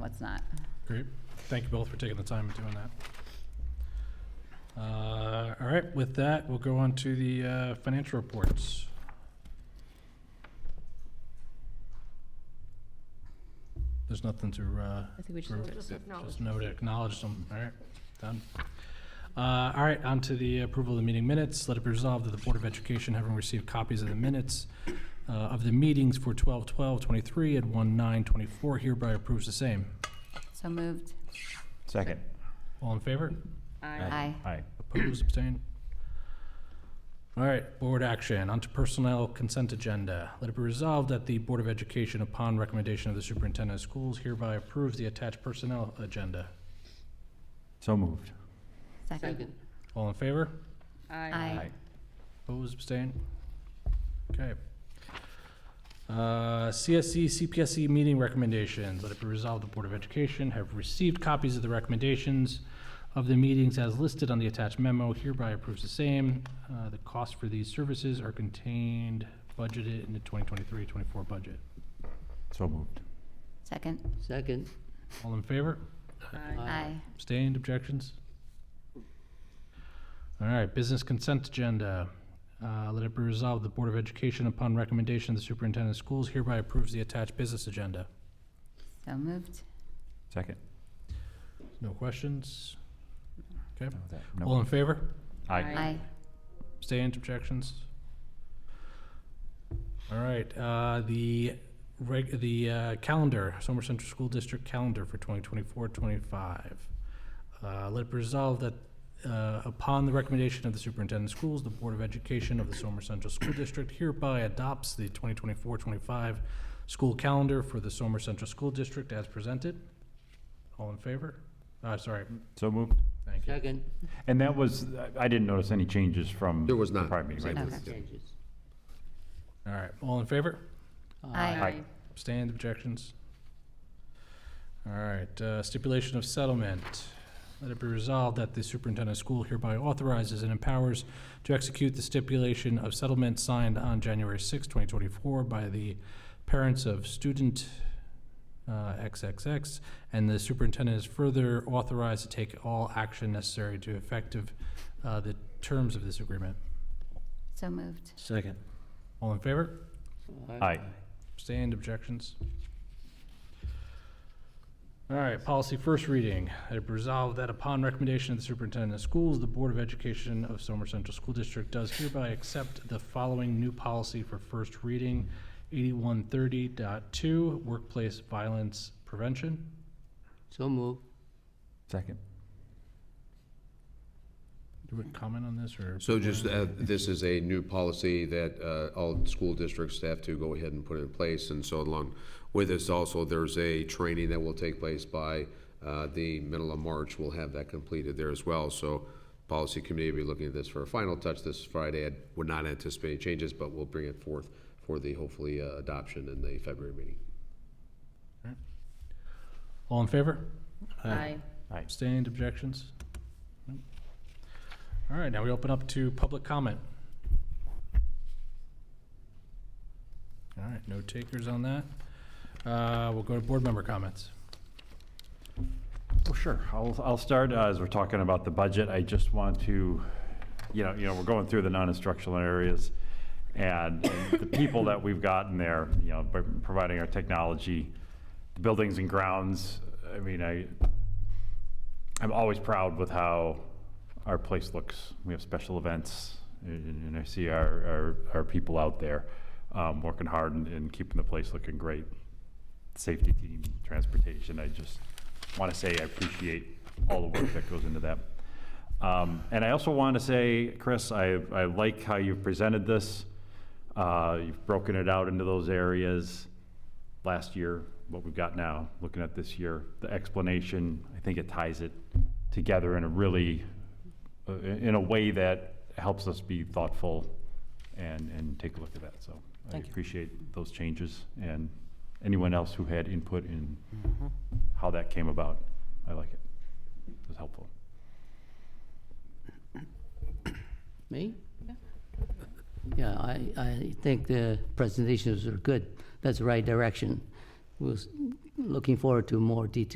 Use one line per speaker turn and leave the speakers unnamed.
what's not.
Great. Thank you both for taking the time and doing that. Uh, All right, with that, we'll go on to the uh, financial reports. There's nothing to, uh,
I think we
Sure.
should,
Just
Just
just no to acknowledge them. All right, done. Uh, All right, on to the approval of the meeting minutes. Let it be resolved that the Board of Education, having received copies of the minutes uh, of the meetings for 12/12/23 and 1/9/24, hereby approves the same.
so moved.
Second.
All in favor?
Aye.
Aye.
Opposed, abstained? All right, board action, onto personnel consent agenda. Let it be resolved that the Board of Education, upon recommendation of the Superintendent of Schools, hereby approves the attached personnel agenda.
So moved.
Second.
All in favor?
Aye.
Opposed, abstained? Okay. Uh, CSE, CPSE meeting recommendations. Let it be resolved, the Board of Education have received copies of the recommendations of the meetings as listed on the attached memo, hereby approves the same. Uh, The costs for these services are contained, budgeted in the 2023-24 budget.
So moved.
Second.
Second.
All in favor?
Aye.
Abstained, objections? All right, business consent agenda. Uh, Let it be resolved, the Board of Education, upon recommendation of the Superintendent of Schools, hereby approves the attached business agenda.
So moved.
Second.
No questions? Okay,
No, that-
all
no.
in favor?
Aye.
Aye.
Abstained, objections? All right, uh, the reg, the uh, calendar, Somer Central School District calendar for 2024-25. Uh, Let it be resolved that uh, upon the recommendation of the superintendent of schools, the Board of Education of the Somer Central School District hereby adopts the 2024-25 school calendar for the Somer Central School District as presented. All in favor? Uh, Sorry,
So moved.
thank you.
Second.
And that was, I- I didn't notice any changes from.
There was
the
not.
Prior meeting, right?
Okay.
Changes.
All right, all in favor?
Aye.
Stand objections? All right, uh, stipulation of settlement. Let it be resolved that the superintendent of school hereby authorizes and empowers to execute the stipulation of settlement signed on January 6, 2024 by the parents of student uh, XXX, and the superintendent is further authorized to take all action necessary to effective uh, the terms of this agreement.
So moved.
Second.
All in favor?
Aye.
Stand objections? All right, policy first reading. I resolve that upon recommendation of the superintendent of schools, the Board of Education of Somer Central School District does hereby accept the following new policy for first reading, 8130.2, workplace violence prevention.
So move.
Second.
Do we comment on this or?
So just, uh, this is a new policy that uh, all school districts have to go ahead and put in place, and so along with this also, there's a training that will take place by uh, the middle of March. We'll have that completed there as well. So policy committee will be looking at this for a final touch this Friday. I would not anticipate any changes, but we'll bring it forth for the hopefully uh, adoption in the February meeting.
All in favor?
Aye.
Aye.
Stand objections? Nope. All right, now we open up to public comment. All right, no takers on that. Uh, We'll go to board member comments.
Well, sure. I'll, I'll start, uh, as we're talking about the budget, I just want to, you know, you know, we're going through the non-instructional areas, and the people that we've gotten there, you know, by providing our technology, the buildings and grounds, I mean, I, I'm always proud with how our place looks. We have special events, and and I see our, our, our people out there, um, working hard and, and keeping the place looking great safety team, transportation, I just want to say I appreciate all the work that goes into that. Um, And I also want to say, Chris, I, I like how you've presented this. Uh, You've broken it out into those areas last year, what we've got now, looking at this year. The explanation, I think it ties it together in a really, uh, in a way that helps us be thoughtful and, and take a look at that, so. I
Thank you.
appreciate those changes and anyone else who had input in
Mm-hmm.
how that came about. I like it. It was helpful.
Me? Yeah, I, I think the presentations are good. That's the right direction. We're s- looking forward to more detail.